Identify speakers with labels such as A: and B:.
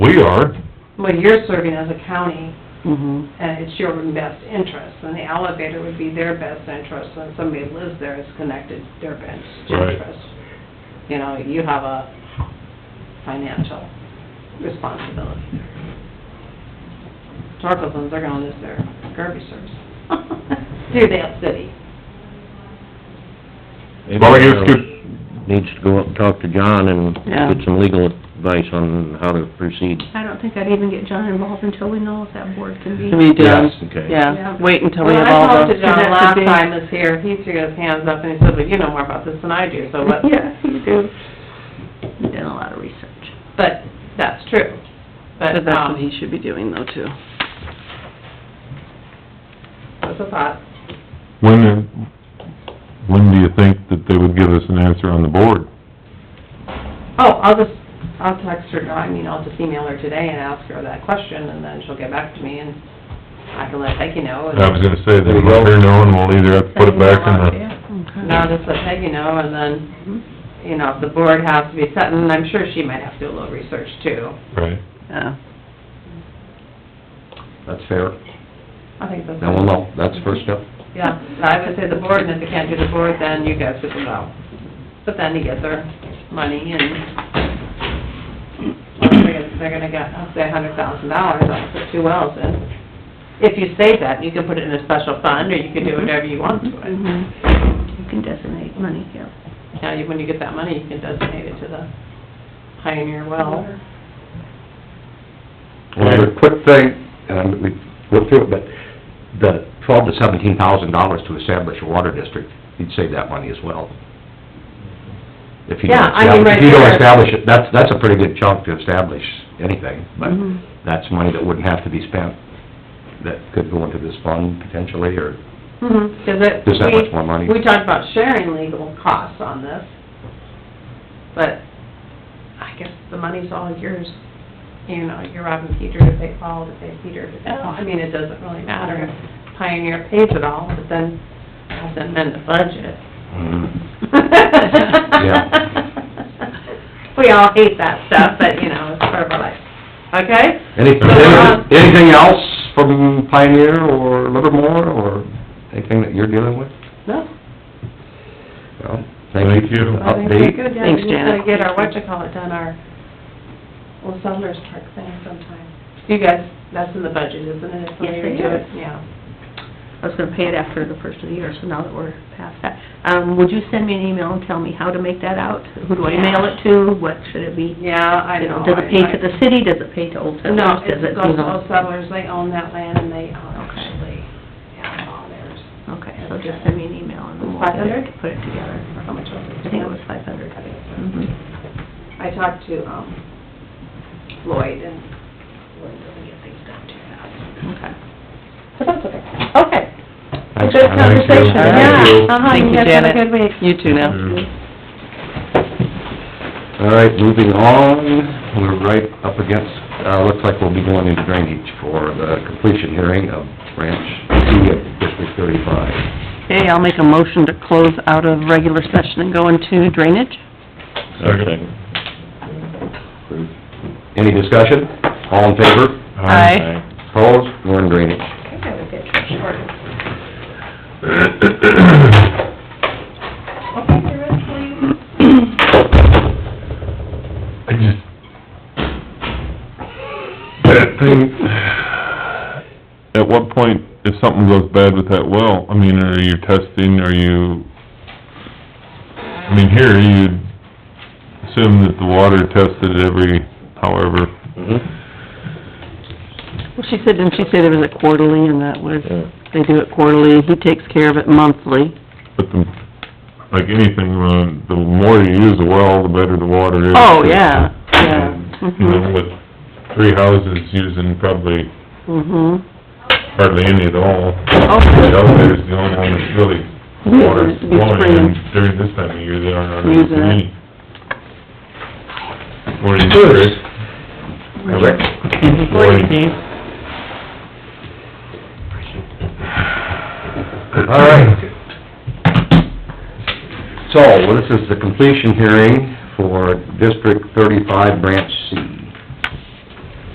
A: We are,
B: Well, you're serving as a county,
C: hmm
B: and it's your best interest, and the elevator would be their best interest, when somebody lives there, it's connected to their best
A: Right.
B: interest. You know, you have a financial responsibility. Torkelson's, they're gonna lose their garbage service through that city.
A: well, I guess
D: Maybe Needs to go up and talk to John and
C: Yeah.
D: get some legal advice on how to proceed.
E: I don't think I'd even get John involved until we know if that board can be.
C: We do,
D: Yes, okay.
C: yeah, wait until we
B: Well,
C: have
B: I
C: all
B: talked
C: those.
B: to John
E: that's a
B: last
E: big-
B: time he was here, he threw his hands up and he said, well, you know more about this than I do, so what?
C: Yeah, you do,
E: We've done a lot of research.
B: But that's true.
C: but that's
B: But,
C: what
B: um,
C: he should be doing though too.
B: that's a thought.
A: when, when do you think that they would give us an answer on the board?
B: Oh, I'll just, I'll text her, I mean, I'll just email her today and ask her that question, and then she'll get back to me, and I can let Peggy know. and-
A: I was gonna say, they let her know, and we'll either have to put it back in the,
E: Yeah.
B: And I'll just let Peggy know, and then,
C: Mm-hmm.
B: you know, if the board has to be set, and I'm sure she might have to do a little research too.
A: right?
C: Yeah,
D: That's fair.
B: I think that's.
D: Now we'll know, that's the first step.
B: Yeah, I would say the board, and if they can't do the board, then you guys would know. But then you get their money and, they're gonna get, I'll say a hundred thousand dollars, I'll put two wells in. If you say that, you can put it in a special fund, or you can do whatever you want to it.
C: mhm,
E: Mm-hmm. You can designate money, yeah.
B: Now, you- when you get that money, you can designate it to the Pioneer Well.
D: Another quick thing, and we worked through it, but the twelve to seventeen thousand dollars to establish a water district, you'd save that money as well. If you don't
B: Yeah, I mean,
D: establish,
B: right
D: if you don't
B: there.
D: establish it, that's, that's a pretty good chunk to establish anything, but
C: Mhm.
B: Mm-hmm.
D: that's money that wouldn't have to be spent, that could go into this fund potentially, or
B: Mhm, 'cause it...
D: Just that
B: we-
D: much more money.
B: We talked about sharing legal costs on this, but I guess the money's all yours. You know, you're robbing Peter to pay Paul, to pay Peter to pay Paul. I mean, it doesn't really matter if Pioneer pays it all, but then I have to amend the budget.
D: Mm-hmm.
B: We all hate that stuff, but, you know, it's part of our life. Okay?
D: Anything,
B: Uh-huh.
D: anything else from Pioneer or Livermore or anything that you're dealing with?
B: No,
D: No?
A: Thank you.
D: for the
B: I think we're
D: Update?
B: good. Yeah,
C: Thanks,
B: we need to
C: Janet.
B: get our, what you call it, done, our Well, Settlers Park thing sometime. You guys, that's in the budget, isn't it? If
E: Yes,
B: somebody
E: it
B: do
E: is.
B: Yeah.
E: I was gonna pay it after the first of the year, so now that we're past that, um, would you send me an email and tell me how to make that out? Who do I mail it to? What should it be?
B: Yeah, I
E: You
B: know.
E: Does it pay to
B: I-
E: the city? Does it pay to Old Settlers?
B: No,
E: Does
B: it
E: it,
B: goes to
E: you know?
B: Old Settlers, they own that land and they own
E: Okay.
B: actually, yeah, all theirs.
E: Okay, so just send me an email and then we'll
B: Five hundred?
E: put it together.
B: Or how much was it?
E: I think it was five hundred.
B: I think so.
E: Mm-hmm.
B: I talked to, um, Lloyd and Lloyd doesn't get things done too fast.
E: Okay.
B: But that's okay. Okay.
D: Thanks,
B: Good
D: John.
B: conversation,
A: Thank you.
B: yeah. Uh-huh,
C: Thank you,
B: guys have a
C: Janet.
B: good week.
C: you too now.
D: All right, moving on, we're right up against, uh, looks like we'll be going into drainage for the completion hearing of branch C of District thirty-five.
C: Okay, I'll make a motion to close out of regular session and go into drainage.
A: Second.
D: Any discussion? All in favor?
C: Aye.
D: Opposed? We're in drainage.
E: I think I would get Trish Gordon.
A: I just, that thing, at what point, if something goes bad with that well, I mean, are you testing, are you, I mean, here, you assume that the water tested every, however,
C: Well, she said, didn't she say there was a quarterly and that was, they do it quarterly, he takes care of it monthly.
A: but the, like anything, uh, the more you use the well, the better the water is. um,
C: Oh, yeah, yeah.
A: You know,
C: Mhm.
A: with three houses using probably
C: Mhm.
A: hardly any at all.
C: Oh. Okay.
A: The elevator's the only one that's really, water's
C: Be
A: flowing,
C: spraying.
A: and during this time of year, they aren't on
C: Using it.
A: any. Morning, Chris.
D: Rick?
A: Morning.
D: All right. So, well, this is the completion hearing for District thirty-five, Branch C.